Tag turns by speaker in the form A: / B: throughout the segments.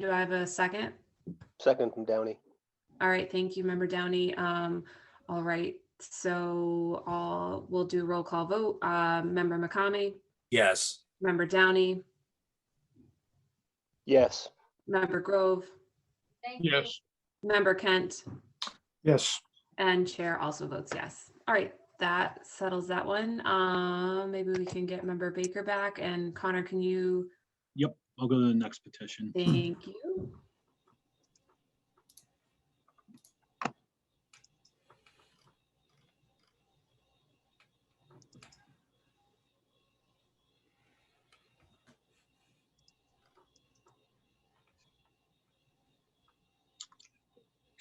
A: Do I have a second?
B: Second from Downey.
A: All right, thank you, member Downey. Um, all right, so all, we'll do roll call vote. Uh, member McCamey,
C: Yes.
A: member Downey,
B: Yes.
A: member Grove,
D: Yes.
A: member Kent,
D: Yes.
A: and chair also votes yes. All right, that settles that one. Uh, maybe we can get member Baker back and Connor, can you,
E: I'll go to the next petition.
A: thank you.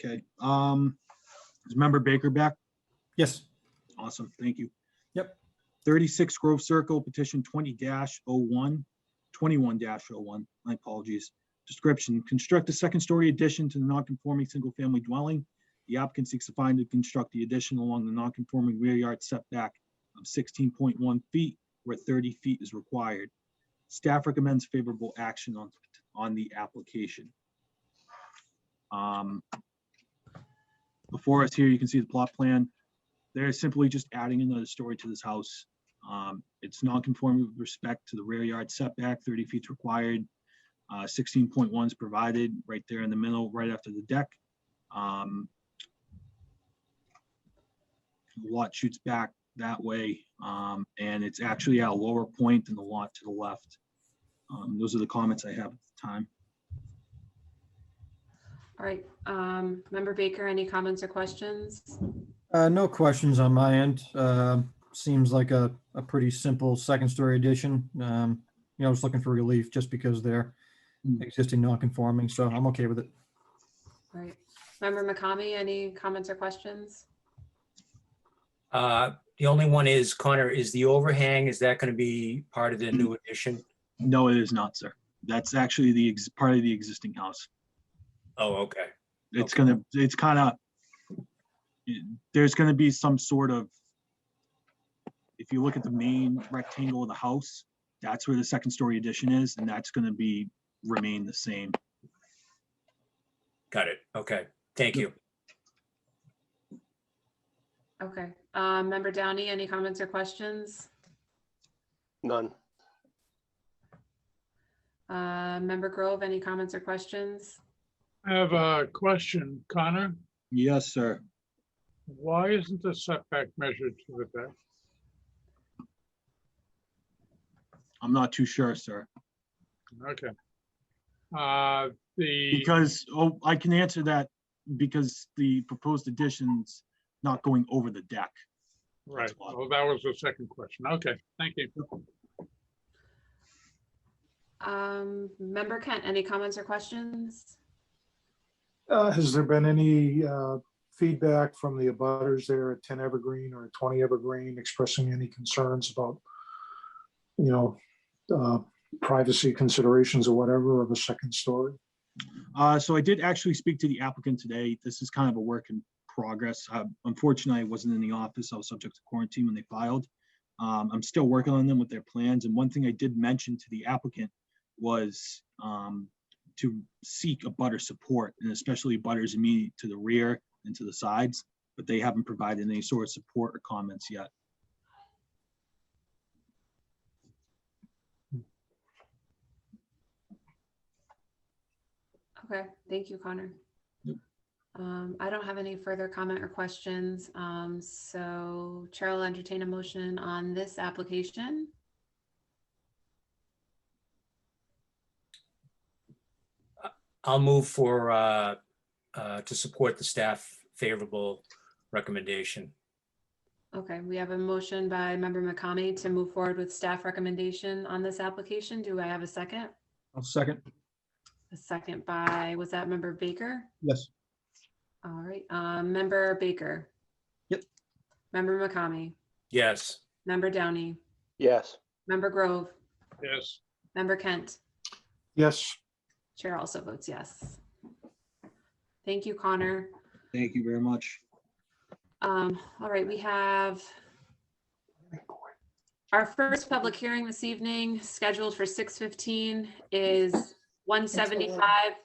E: Okay, um, is member Baker back?
D: Yes.
E: Awesome, thank you.
D: Yep.
E: Thirty-six Grove Circle, petition twenty dash oh one, twenty-one dash oh one, my apologies. Description, construct a second-story addition to the non-conforming single-family dwelling. The applicant seeks to find and construct the addition along the non-conforming rear yard setback of sixteen point one feet where thirty feet is required. Staff recommends favorable action on, on the application. Um, Before us here, you can see the plot plan. They're simply just adding another story to this house. Um, it's non-conforming with respect to the rear yard setback, thirty feet required. Uh, sixteen point one is provided right there in the middle, right after the deck. Um, the Lot shoots back that way, um, and it's actually at a lower point than the lot to the left. Um, those are the comments I have at the time.
A: All right, um, member Baker, any comments or questions?
D: Uh, no questions on my end. Uh, seems like a, a pretty simple second story addition. Um, you know, I was looking for relief just because they're
E: Mm.
D: existing non-conforming, so I'm okay with it.
A: All right, member McCamey, any comments or questions?
C: Uh, The only one is Connor, is the overhang, is that going to be part of the new addition?
E: No, it is not, sir. That's actually the, ex- part of the existing house.
C: Oh, okay.
E: it's
C: Okay.
E: gonna, it's kind of, there's gonna be some sort of, if you look at the main rectangle of the house, that's where the second story addition is, and that's gonna be, remain the same.
C: Got it. Okay. Thank you.
A: Okay, uh, member Downey, any comments or questions?
B: None.
A: Uh, member Grove, any comments or questions?
F: I have a question, Connor.
E: Yes, sir.
F: Why isn't the setback measured to the deck?
E: I'm not too sure, sir,
F: Okay. Uh, The,
E: because, oh, I can answer that because the proposed addition's not going over the deck.
F: right, well, that was the second question. Okay, thank you.
A: Um, member Kent, any comments or questions?
G: Uh, has there been any, uh, feedback from the abutters there at ten Evergreen or twenty Evergreen expressing any concerns about, you know, uh, privacy considerations or whatever of a second story?
E: Uh, so I did actually speak to the applicant today. This is kind of a work in progress. Uh, Unfortunately, I wasn't in the office. I was subject to quarantine when they filed. Um, I'm still working on them with their plans. And one thing I did mention to the applicant was um, to seek a butter support and especially butters immediate to the rear and to the sides, but they haven't provided any sort of support or comments yet.
A: Okay, thank you, Connor.
E: Yep.
A: Um, I don't have any further comment or questions, um, so Chair will entertain a motion on this application.
C: I'll move for, uh, uh, to support the staff favorable recommendation.
A: Okay, we have a motion by member McCamey to move forward with staff recommendation on this application. Do I have a second?
D: I'll second.
A: A second by, was that member Baker?
D: Yes.
A: All right, um, member Baker.
D: Yep.
A: Member McCamey,
C: Yes.
A: member Downey,
B: Yes.
A: member Grove,
F: Yes,
A: member Kent.
G: Yes,
A: Chair also votes yes. Thank you, Connor.
E: Thank you very much.
A: Um, all right, we have our first public hearing this evening scheduled for six fifteen is one seventy-five